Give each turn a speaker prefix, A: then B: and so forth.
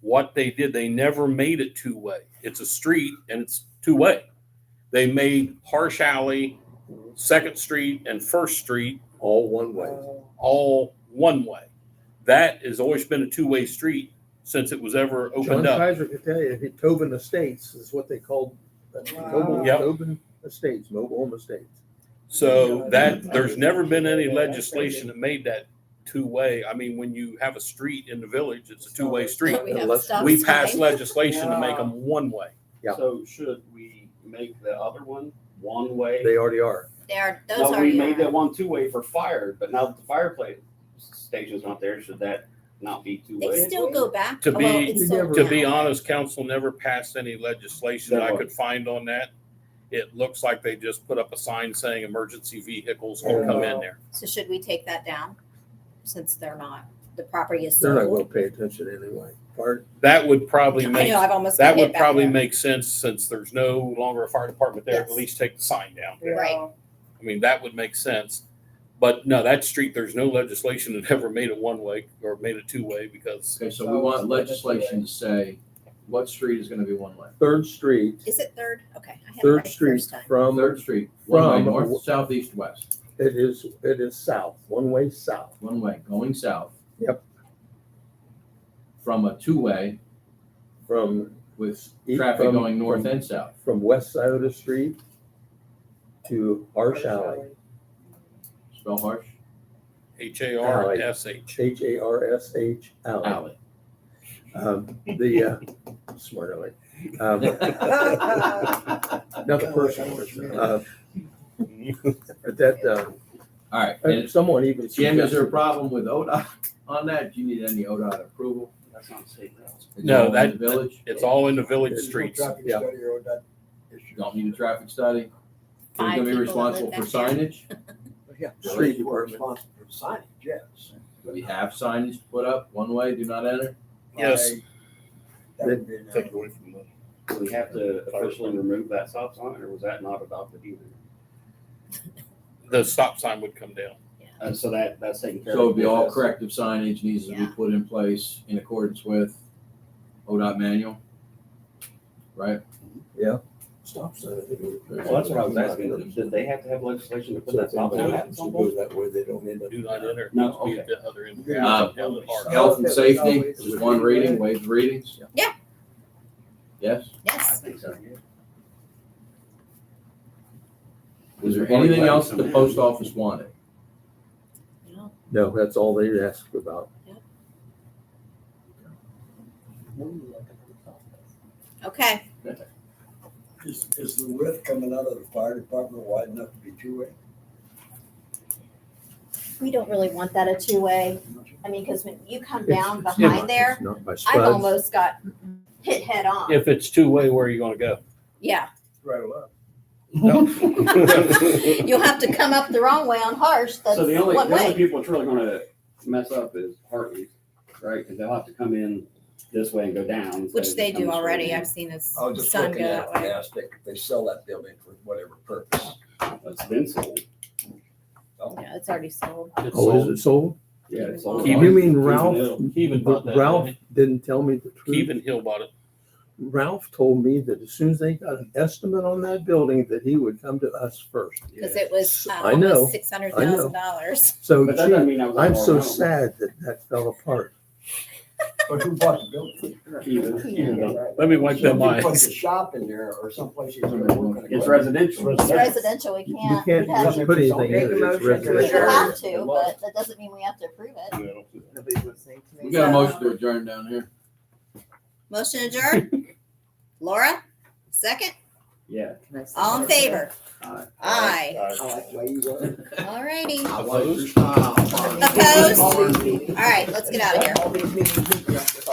A: what they did. They never made it two way. It's a street and it's two way. They made Harsh Alley, Second Street, and First Street
B: all one way.
C: Uh,
A: all one way. That has always been a two way street since it was ever
C: John
A: opened up.
C: Kaiser could tell you, if it- Tobin Estates is what they called, uh, Tobin,
A: Yep.
C: Tobin Estates, mobile home estates.
A: So that there's never been any legislation that made that two way. I mean, when you have a street in the village, it's a two way street.
D: We have
B: unless
D: stop
A: We passed
D: sign.
A: legislation to make them one way.
C: Yeah.
E: So should we make the other one one way?
C: They already are.
D: They are, uh, those
E: Well, we
D: already
E: made that
D: are.
E: one two way for fire, but now that the fireplace station's not there, should that not be two
D: They
E: way?
D: still go back.
A: To
D: Oh, well,
A: be-
D: it's sold
A: To be
D: now.
A: honest, council never passed any legislation that I could find on that. It looks like they just put up a sign saying emergency vehicles won't come in there.
D: So should we take that down? Since they're not, the property is
C: They're not
D: sold.
C: gonna pay attention anyway. Part,
A: That would probably
D: I
A: make,
D: know, I've almost.
A: that
D: put it
A: would
D: back
A: probably
D: there.
A: make sense since there's no longer a fire department there, at
D: Yes.
A: least take the sign down.
D: Right.
A: I mean, that would make sense. But no, that street, there's no legislation that ever made it one way or made it two way because
F: Okay, so we want legislation to say what street is gonna be one way.
C: Third Street,
D: Is it third? Okay. I had it right
C: Third
D: the
C: Street
D: first time.
C: from,
F: Third Street, one way,
C: From-
F: north, south, east, west,
C: it is, it is south, one way south.
F: one way, going south.
C: Yep.
F: From a two-way
C: From,
F: with
C: East
F: traffic
C: from-
F: going north and south.
C: from West Iota Street to Harsh Alley,
F: Spell harsh,
A: H A R
C: Alley.
A: S H.
C: H A R S H Alley.
F: alley.
C: Um, The, uh, smart alley. Um, Nothing personal. uh, But that, uh,
F: All right,
C: Uh,
F: and
C: Someone even.
F: Jim, is there a
C: suggested-
F: problem with ODOT on that? Do you need any ODOT approval?
E: That's not safe.
F: Is it
A: No,
F: all in the
A: that-
F: Village,
A: It's all in the village streets.
C: Yeah.
F: you don't need a traffic study. You're
D: Five people
F: gonna be
D: that live
F: responsible for
D: back there.
F: signage?
C: Street department.
F: Do we have signage put up, one way, do not enter?
A: Yes.
B: Take away from the.
E: Do we have to officially remove that stop sign, or was that not adopted either?
A: The stop sign would come down.
E: Uh, so that, that's taken care of.
F: So it'd be all
E: Yes.
F: corrective signage needs to be
D: Yeah.
F: put in place in accordance with ODOT manual, right?
C: Stop sign. I think it was-
E: Well, that's what I was asking. Did they have to have legislation to put
B: So
E: that
B: if
E: stop sign
B: anybody
E: at
B: happens to
E: some
B: go
E: point?
B: that way, they don't end up.
A: Do not enter.
E: No,
A: Must be at
E: okay.
A: the other end.
F: Uh,
A: Down the park.
F: Health and safety, just one reading, waive the readings?
D: Yeah.
F: Yes?
E: I
D: Yes.
E: think so, yeah.
F: Was there anything else the post office wanted?
D: No,
C: No, that's all they asked about.
D: Okay.
G: Is, is the width coming out of the fire department wide enough to be two-way?
D: We don't really want that a two-way. I mean, because when you come down
C: It's- it's not-
D: behind there,
C: it's Not by
D: I've
C: spuds.
D: almost got hit head on.
A: If it's two way, where are you gonna go?
D: Yeah.
G: Right left.
D: You'll have to come up the wrong way on Harsh. That's
E: So the only,
D: one
E: the only
D: way.
E: people it's really gonna mess up is Hartley's, right? Cause they'll have to come in this way and go down. instead of
D: Which
E: just
D: they
E: coming
D: do
E: straight
D: already.
E: in.
D: I've seen his
C: Oh,
G: I was just
D: son go
G: looking at
D: that
G: it,
D: way.
G: gas station. They sell that building for whatever purpose.
E: It's been sold.
D: Yeah, it's already sold.
A: It's
C: Oh, is
A: sold.
C: it sold?
E: Yeah, it's sold.
A: Keep-
C: You mean
E: Keep it
C: Ralph?
E: ill.
A: Keevan bought that.
C: Ralph didn't tell me the truth.
A: Keevan Hill bought it.
C: Ralph told me that as soon as they got an estimate on that building, that he would come to us first.
D: Because it was uh,
C: I know.
D: almost six hundred thousand dollars.
C: So
E: But that doesn't
C: gee,
E: mean I was.
C: I'm
E: all
C: so
E: wrong.
C: sad that that fell apart.
G: But who bought the building?
E: Keep it- keep it up.
A: Let me wipe that
G: Somebody
A: mind.
G: Put the shop in there or someplace you can work.
E: It's residential.
D: It's residential, we
C: You
D: can't.
C: can't
D: we'd have-
C: just put anything in it. It's
D: We
C: residential.
D: would have to, but that doesn't mean we have to approve it.
F: We got a motion to adjourn down here.
D: Motion adjourned. Laura, second.
E: Yeah.
D: All in favor?
E: Aye.
D: Aye.
G: Oh, Opposed?
D: All righty.
F: I like your
D: Opposed? All right, let's get out of here.
G: All these meetings.